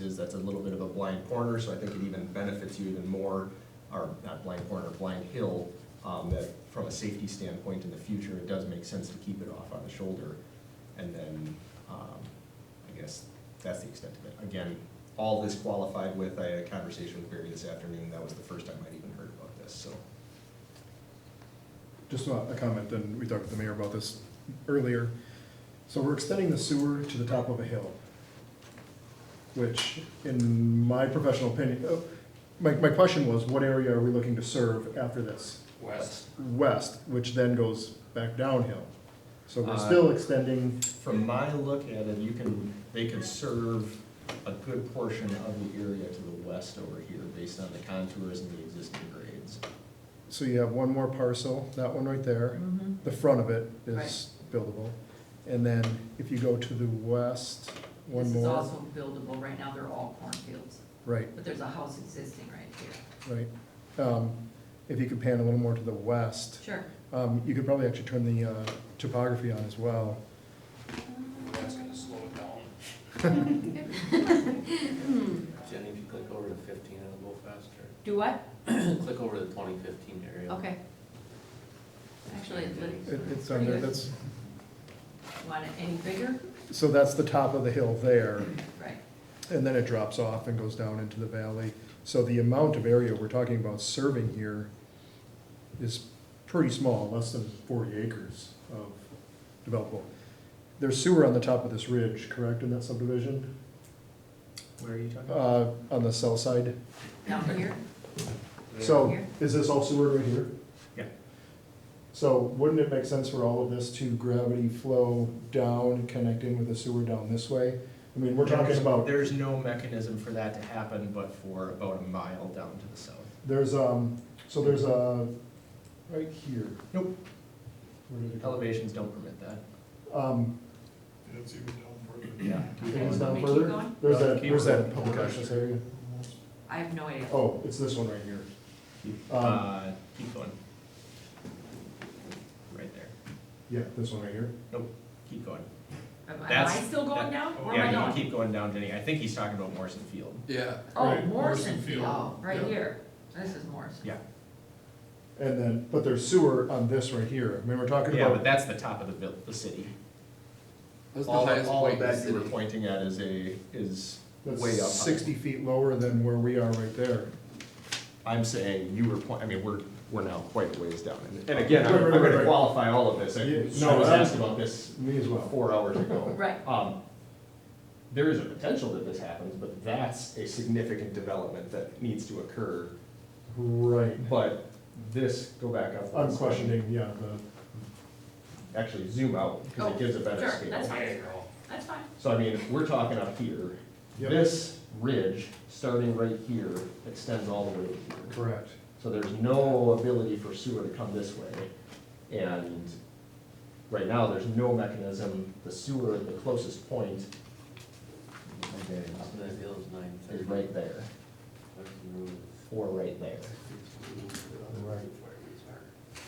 is that's a little bit of a blind corner, so I think it even benefits you even more, or not blind corner, blind hill, um, that from a safety standpoint in the future, it does make sense to keep it off on the shoulder. And then, um, I guess that's the extent of it. Again, all this qualified with, I had a conversation with Barry this afternoon, that was the first time I'd even heard about this, so. Just a a comment, and we talked with the mayor about this earlier. So we're extending the sewer to the top of a hill, which in my professional opinion, oh, my, my question was, what area are we looking to serve after this? West. West, which then goes back downhill. So we're Uh, still extending, From my look at it, you can, they can serve a good portion of the area to the west over here based on the contours and the existing grades. so you have one more parcel, that one right there. Mhm. The front of it is buildable. And then if you go to the west, one This is more, also buildable, right now they're all cornfields, right, but there's a house existing right here. right. Um, If you could pan a little more to the west, Sure. Um, you could probably actually turn the, uh, topography on as well. That's gonna slow it down. Jenny, if you click over to fifteen, it'll go faster. Do what? Click over to the twenty fifteen area. Okay. Actually, it looks It, it's pretty under, good. that's, Want it any bigger? so that's the top of the hill there, Right. and then it drops off and goes down into the valley. So the amount of area we're talking about serving here is pretty small, less than forty acres of developable. There's sewer on the top of this ridge, correct, in that subdivision, Where are you talking about? uh, on the south side? Down here? So Here. is this all sewer right here? Yeah. So wouldn't it make sense for all of this to gravity flow down, connect in with the sewer down this way? I mean, we're talking about, There's no mechanism for that to happen but for about a mile down to the south. there's, um, so there's a, right here. Nope. Where did it go? Elevations don't permit that. Um, It's even down Yeah. it goes Let me down keep further. going. There's Uh, that, keep there's that going. public access area. I have no idea. Oh, it's this one right here. um, Uh, keep going. Right there. Yeah, this one right here. Nope, keep going. Am am I that's- still going that- down? Where am I Yeah, you going? keep going down, Jenny. I think he's talking about Morrison Field. Yeah. Oh, Right, Morrison Morrison Field, Field. Oh, right Yeah. here. This is Morrison. Yeah. And then, but there's sewer on this right here. I mean, we're talking Yeah, but about, that's the top of the vil, the city. That's the All, highest all of point in the that you were city. pointing at is a, is way up. high. that's sixty feet lower than where we are right there. I'm saying you were, point- I mean, we're, we're now quite a ways down. And- And again, I'm Right, I'm right, gonna right. qualify all of this. I Yeah, I no, was that- asked about this Me as well. four hours ago. Right. Um, There is a potential that this happens, but that's a significant development that needs to occur. Right. But this, go back up. I'm questioning, yeah, the, Actually, zoom out, because Oh, it gives a better sure, scale. that's fine. There you go. That's fine. So I mean, we're talking up here, Yep. this ridge, starting right here, extends all the way to here. correct. So there's no ability for sewer to come this way. And right now, there's no mechanism, the sewer, the closest point Up in that hill is nine is thirty. right there, or right there. Right.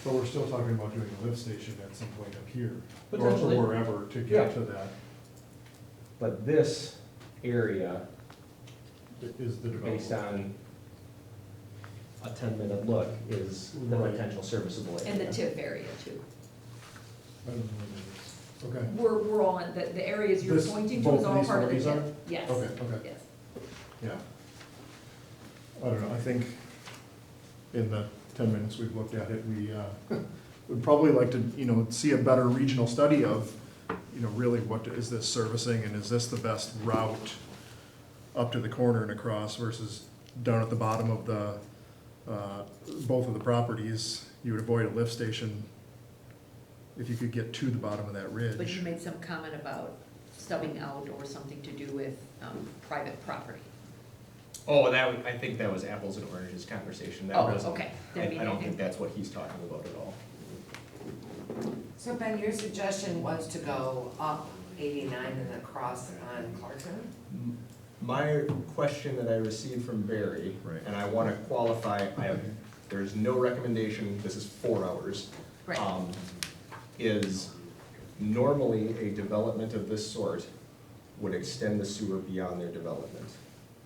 But we're still talking about doing a lift station at some point up here. or Potentially. Or wherever to Yeah. get to that But this area, is the development. based on a ten-minute look, is the Right. potential serviceable area. And the TIF area too. I don't know what it is. Okay. We're, we're all, the, the areas you're This- pointing to is both all these part of the bodies TIF. are? Yes, Okay, okay, yes. yeah. I don't know, I think in the ten minutes we've looked at it, we, uh, would probably like to, you know, see a better regional study of, you know, really what is this servicing and is this the best route up to the corner and across versus down at the bottom of the, uh, both of the properties, you would avoid a lift station if you could get to the bottom of that ridge. But you made some comment about stubbing out or something to do with, um, private property. Oh, that, was- I think that was apples and oranges conversation, that Oh, wasn't. okay. I, That'd be I don't nothing. think that's what he's talking about at all. So Ben, your suggestion was to go up eighty-nine and across on Clarkson? My question that I received from Barry, Right. and I wanna qualify, I have, there's no recommendation, this is four hours. Right. um, Is normally a development of this sort would extend the sewer beyond their development.